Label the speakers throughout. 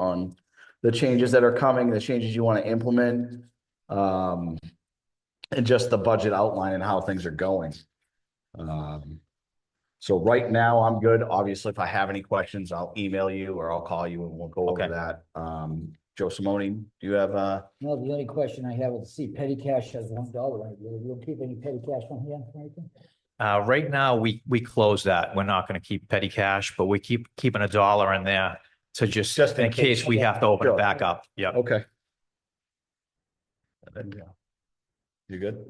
Speaker 1: um, the changes that are coming, the changes you want to implement. Um, and just the budget outline and how things are going. Um, so right now I'm good. Obviously, if I have any questions, I'll email you or I'll call you and we'll go over
Speaker 2: Okay.
Speaker 1: that. Um, Joe Simone, do you have, uh,
Speaker 3: No, the only question I have is, see, petty cash has one dollar, right? You don't keep any petty cash on here, Franklin?
Speaker 2: Uh, right now, we, we close that. We're not gonna keep petty cash, but we keep keeping a dollar in there to just,
Speaker 1: Just in
Speaker 2: in case we have to open
Speaker 1: Sure.
Speaker 2: it back up. Yep.
Speaker 1: okay. You good?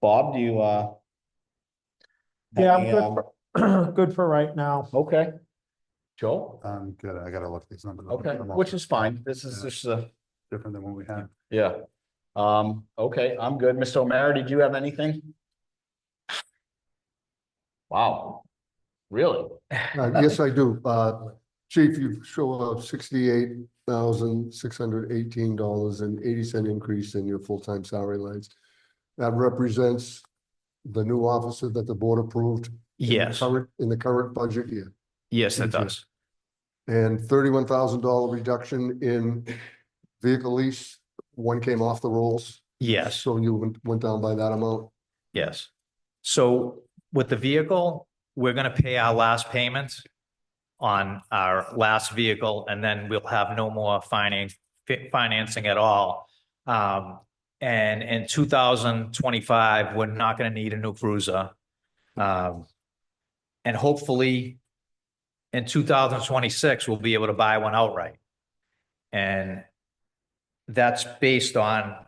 Speaker 1: Bob, do you, uh?
Speaker 4: Yeah, I'm
Speaker 1: any,
Speaker 4: good
Speaker 1: um,
Speaker 4: for, good for right now.
Speaker 1: Okay. Joe?
Speaker 5: I'm good. I gotta look these numbers. up.
Speaker 1: Okay,
Speaker 5: They're all
Speaker 1: which is fine. This is
Speaker 5: Yeah.
Speaker 1: just a,
Speaker 5: Different than what we had.
Speaker 1: yeah. Um, okay, I'm good. Mr. O'Meara, did you have anything? Wow, really?
Speaker 6: Uh, Yes, I do. Uh, Chief, you show up sixty-eight thousand, six hundred eighteen dollars and eighty cent increase in your full-time salary lines. That represents the new officer that the board approved. in the
Speaker 2: Yes,
Speaker 6: current- In the current budget year.
Speaker 2: yes, it
Speaker 6: Thank you.
Speaker 2: does.
Speaker 6: And thirty-one thousand dollar reduction in vehicle lease. One came off the rolls.
Speaker 2: Yes,
Speaker 6: So you went, went down by that amount.
Speaker 2: yes. So with the vehicle, we're gonna pay our last payment on our last vehicle, and then we'll have no more finance, fi- financing at all. Um, and in two thousand twenty-five, we're not gonna need a new cruiser. Um, and hopefully in two thousand twenty-six, we'll be able to buy one outright. And that's based on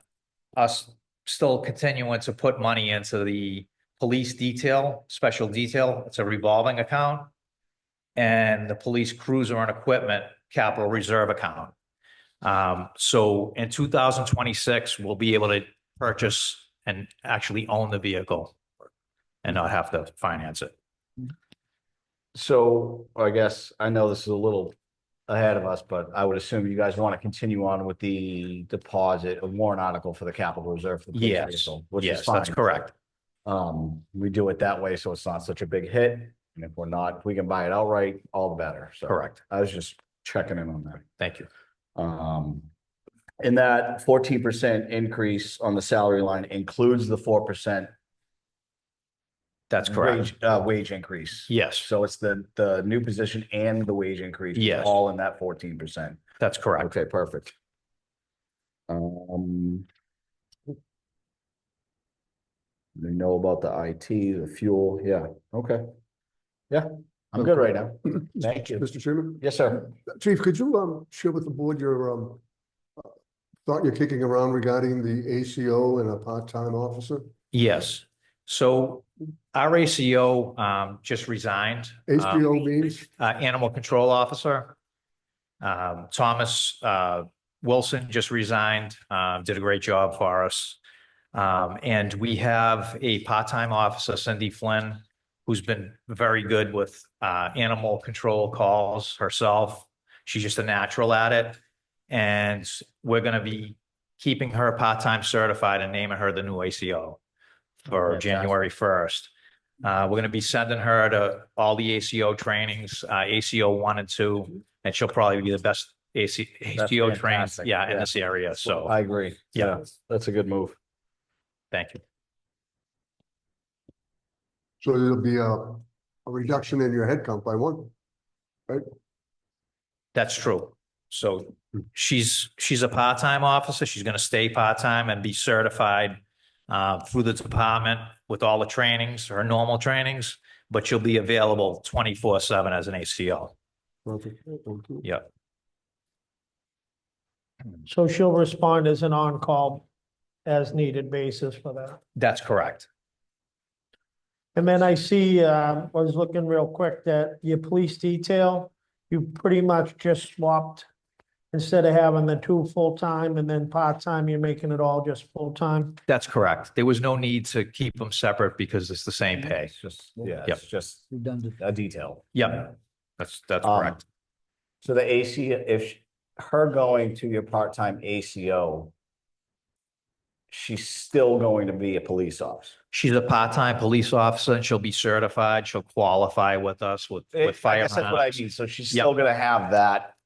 Speaker 2: us still continuing to put money into the police detail, special detail. It's a revolving account and the police cruiser and equipment capital reserve account. Um, so in two thousand twenty-six, we'll be able to purchase and actually own the vehicle and not have to finance it.
Speaker 1: So I guess I know this is a little ahead of us, but I would assume you guys want to continue on with the deposit, a warrant article for the capital reserve. for the police
Speaker 2: Yes,
Speaker 1: vehicle, which is
Speaker 2: yes, that's
Speaker 1: fine.
Speaker 2: correct.
Speaker 1: Um, we do it that way, so it's not such a big hit. And if we're not, if we can buy it outright, all the better. So.
Speaker 2: Correct.
Speaker 1: I was just checking in on that.
Speaker 2: Thank you.
Speaker 1: Um, and that fourteen percent increase on the salary line includes the four percent
Speaker 2: That's correct.
Speaker 1: wage, uh, wage increase.
Speaker 2: Yes,
Speaker 1: So it's the, the new position and the wage increase.
Speaker 2: Yes.
Speaker 1: All in that fourteen percent.
Speaker 2: that's correct.
Speaker 1: Okay, perfect. Um. They know about the IT, the fuel, yeah, okay. Yeah, I'm good right now. Thank you.
Speaker 6: Mr. Chairman?
Speaker 1: Yes, sir.
Speaker 6: Chief, could you um share with the board your um uh, thought you're kicking around regarding the ACO and a part-time officer?
Speaker 2: Uh, Yes. So our ACO, um, just resigned. Um,
Speaker 6: HPO means,
Speaker 2: uh, Animal Control Officer. Um, Thomas, uh, Wilson just resigned, uh, did a great job for us. Um, and we have a part-time officer, Cindy Flynn, who's been very good with, uh, animal control calls herself. She's just a natural at it. And we're gonna be keeping her part-time certified and naming her the new ACO for
Speaker 1: Fantastic.
Speaker 2: January first. Uh, we're gonna be sending her to all the ACO trainings, uh, ACO one and two, and she'll probably be the best AC, ACO trained,
Speaker 1: fantastic.
Speaker 2: yeah, in
Speaker 1: Yeah.
Speaker 2: this area, so,
Speaker 1: I agree.
Speaker 2: Yeah.
Speaker 1: That's a good move.
Speaker 2: thank you.
Speaker 6: so there'll be a a reduction in your headcount by one.
Speaker 2: That's true. So she's, she's a part-time officer. She's gonna stay part-time and be certified uh, through the department with all the trainings, her normal trainings, but she'll be available twenty-four seven as an ACO.
Speaker 6: Perfect. Thank you.
Speaker 4: So she'll respond as an on-call as needed basis for that.
Speaker 2: That's correct.
Speaker 4: And then I see, um, I was looking real quick that your police detail, you pretty much just swapped. Instead of having the two full-time and then part-time, you're making it all just full-time.
Speaker 2: That's correct. There was no need to keep them separate because it's the same pay.
Speaker 1: It's just, yeah,
Speaker 2: Yep.
Speaker 1: it's just
Speaker 3: Redundant.
Speaker 1: a detail.
Speaker 2: Yep, that's, that's
Speaker 1: Um,
Speaker 2: correct.
Speaker 1: So the AC, if sh- her going to your part-time ACO, she's still going to be a police officer.
Speaker 2: She's a part-time police officer and she'll be certified. She'll qualify with us with,
Speaker 1: Eh, I
Speaker 2: with fire.
Speaker 1: guess That's what I
Speaker 2: harness.
Speaker 1: mean. So she's
Speaker 2: Yep.
Speaker 1: still gonna have that